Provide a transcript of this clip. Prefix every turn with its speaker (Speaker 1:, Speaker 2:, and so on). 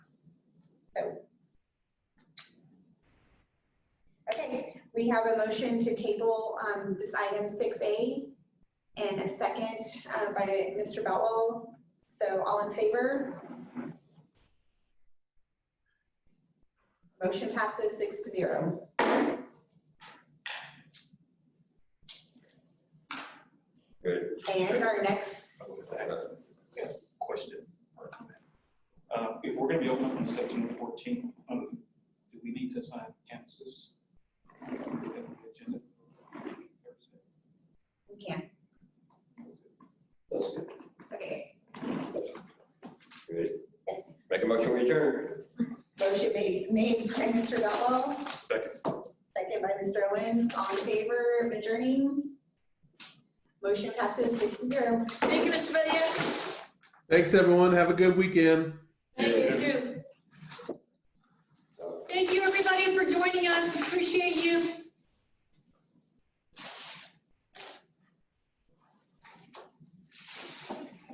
Speaker 1: So. Okay, we have a motion to table um, this item six A and a second uh, by Mr. Bowell. So all in favor? Motion passes six to zero.
Speaker 2: Good.
Speaker 1: And our next,
Speaker 3: question or comment. Uh, If we're gonna be open up on September fourteenth, um, do we need to sign campuses? Agenda?
Speaker 1: we can,
Speaker 2: Sounds good.
Speaker 1: okay,
Speaker 2: Good.
Speaker 1: yes.
Speaker 2: Make a motion, we adjourn.
Speaker 1: Motion made, made by Mr. Bowell,
Speaker 3: Second.
Speaker 1: second by Mr. Owens. All in favor of adjourning? Motion passes six to zero.
Speaker 4: Thank you, Mr. Bedia.
Speaker 5: Thanks, everyone. Have a good weekend.
Speaker 4: Thank you too. Thank you, everybody, for joining us. Appreciate you.